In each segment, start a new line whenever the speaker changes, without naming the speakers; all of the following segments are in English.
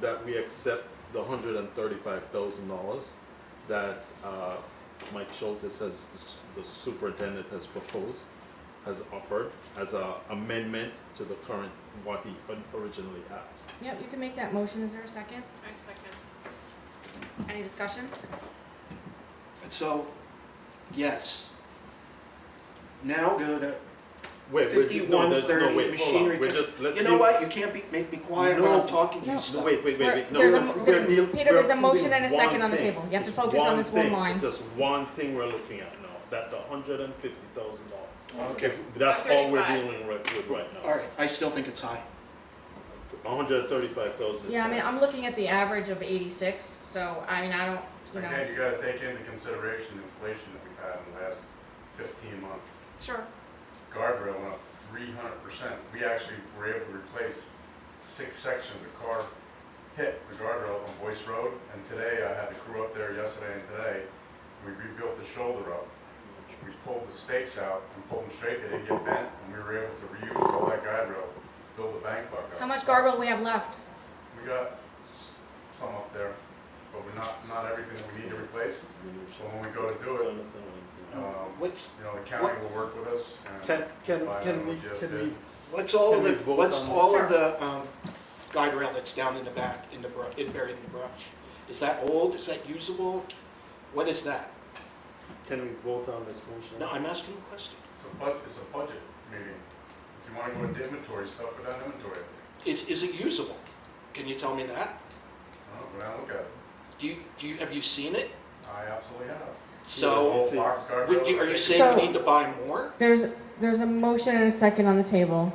that we accept the hundred and thirty-five thousand dollars that, uh, Mike Schultz has, the s- the superintendent has proposed, has offered as a amendment to the current, what he originally asked.
Yep, you can make that motion. Is there a second?
I second.
Any discussion?
So, yes. Now go to
Wait, wait, no,
fifty-one
there's, no,
thirty
wait, hold on,
machinery.
we're just, let's.
You know
leave-
what, you can't be, make me quiet when
No,
I'm talking to
no. No,
you
No,
stuff.
wait, wait, wait, wait, no,
There's
we're,
a-
we're
there-
deal-
Peter,
we're
there's a motion
approving
and a second
one
on the
thing.
table. You have to
It's
focus on this one
thing.
line.
It's just one thing we're looking at now, that the hundred and fifty thousand dollars.
Okay,
That's all we're
135.
dealing with, with right now.
all right, I still think it's high.
hundred and thirty-five thousand.
Yeah, I mean, I'm looking at the average of eighty-six, so I mean, I don't, you know.
Again, you gotta take into consideration the inflation that we've had in the last fifteen months.
Sure.
Guardrail went up three hundred percent. We actually were able to replace six sections. A car hit the guardrail on Boyce Road, and today I had the crew up there yesterday and today. We rebuilt the shoulder up. We pulled the stakes out and pulled them straight. They didn't get bent, and we were able to reuse all that guardrail, build the bank buck up.
How much guardrail we have left?
We got s- some up there, but we're not, not everything that we need to replace. So when we go to do it, um,
What's,
you know, the county will work with us. and
Can, can,
provide
can
them
we,
with
can
just
we,
bid.
what's all of
Can we
the,
vote
what's
on this?
all of the, um, guide rail that's down in the back, in the brush, buried in the brush? Is that old, is that usable? What is that?
can we vote on this motion?
No, I'm asking a question.
It's a budget, it's a budget meeting. If you wanna go into inventory stuff, go down to inventory.
Is, is it usable? Can you tell me that?
I don't know, go down and look at it.
Do you, do you, have you seen it?
I absolutely have.
So,
The whole box guard.
would you, are you saying
So-
we need to buy more?
There's, there's a motion and a second on the table.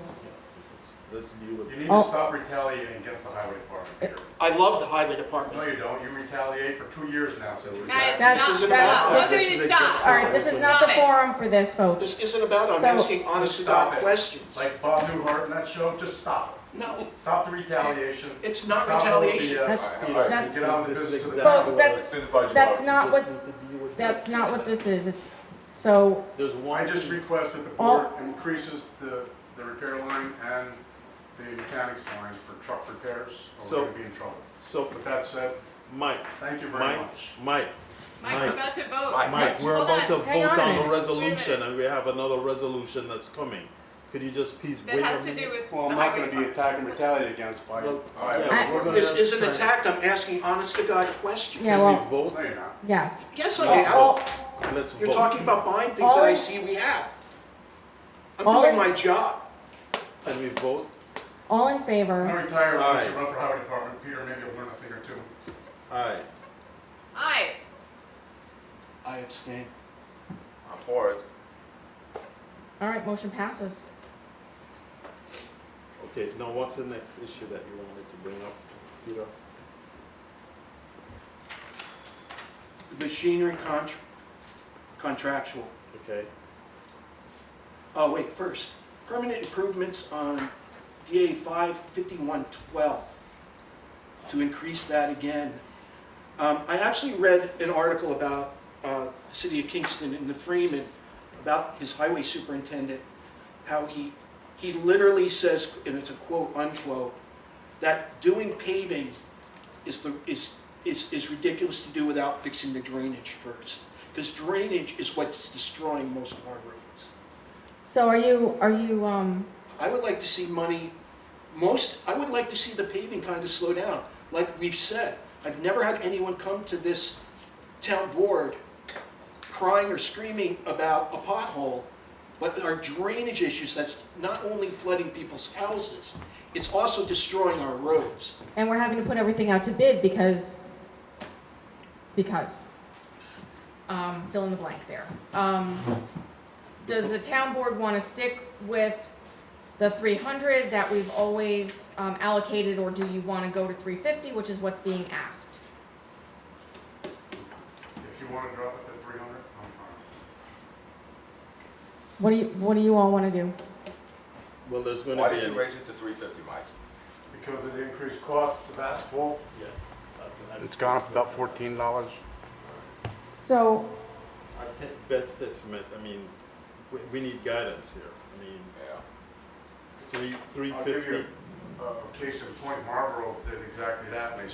Let's- Let's deal with.
You need
Oh.
to stop retaliating against the highway department, Peter.
I love the highway
No,
department.
you don't. You retaliate for two years now, so. we-
Guys,
That's-
stop,
isn't
stop.
about-
Both of you
That's-
All
stop.
right, this is not the forum for this, folks.
This isn't about, I'm
So-
asking honest to God
Stop it.
questions.
Like Bob Newhart in that show, just stop it.
No,
Stop the retaliation.
It's not
Stop all the
retaliation.
BS.
That's-
All right,
that's-
Get on with
This is
business to the
exactly
Folks,
what
that's-
it's-
Do the budget.
That's
Bob.
not
we
what,
just need to deal with
that's
this.
not what this is. It's, so,
There's
I
one,
just
thing-
request that the
All-
board increases the, the repair line and the mechanics line for truck repairs, or
So-
we're gonna be in trouble.
so,
With that said,
Mike,
thank you very
Mike,
much.
Mike,
Mike's about to vote.
Mike, we're
Hold
about to
on.
Hang on
vote
a
on the
minute.
resolution
minute.
and we have another resolution that's coming. Could you just please wait a
That
minute?
has to do with.
Well,
the
I'm not
highway
gonna be attacked and retaliated against by.
Well,
All right,
yeah,
we're gonna-
this isn't attack, I'm asking honest to God questions.
Yeah,
Can
well-
we vote?
No, you're not.
yes.
Yes, I
Let's
am.
vote. Let's
You're
vote.
talking about buying things
All
that I
in-
see we have. I'm
All
doing
in-
my job.
Can we vote?
All in
I'm gonna
favor?
retire,
All
I'm
right.
gonna run for highway department, Peter, maybe you'll learn a thing or two.
Alright,
Aye.
I abstain.
I'm for it.
All right, motion passes.
okay, now what's the next issue that you wanted to bring up, Peter?
The machinery contr- contractual.
Okay,
Oh, wait, first, permanent improvements on DA five fifty-one twelve, to increase that again. Um, I actually read an article about, uh, the city of Kingston and the Freeman, about his highway superintendent, how he, he literally says, and it's a quote unquote, that doing paving is the, is, is, is ridiculous to do without fixing the drainage first. Because drainage is what's destroying most of our roads.
So are you, are you, um,
I would like to see money, most, I would like to see the paving kind of slow down. Like we've said, I've never had anyone come to this town board crying or screaming about a pothole, but our drainage issues, that's not only flooding people's houses, it's also destroying our roads.
and we're having to put everything out to bid because, because, um, fill in the blank there. Um, does the town board want to stick with the three hundred that we've always um, allocated, or do you want to go to three fifty, which is what's being asked?
If you wanna drop it to three hundred, I'm fine.
What do you, what do you all want to do?
well, there's gonna
Why
be
did you
an.
raise it to three fifty, Mike?
Because of the increased cost of asphalt.
Yeah, uh, I- I-
dollars.
So,
Our te- best estimate, I mean, we, we need guidance here, I mean,
Yeah.
three, three
I'll give
fifty,
you- uh, case in point, Marlboro did exactly that, and they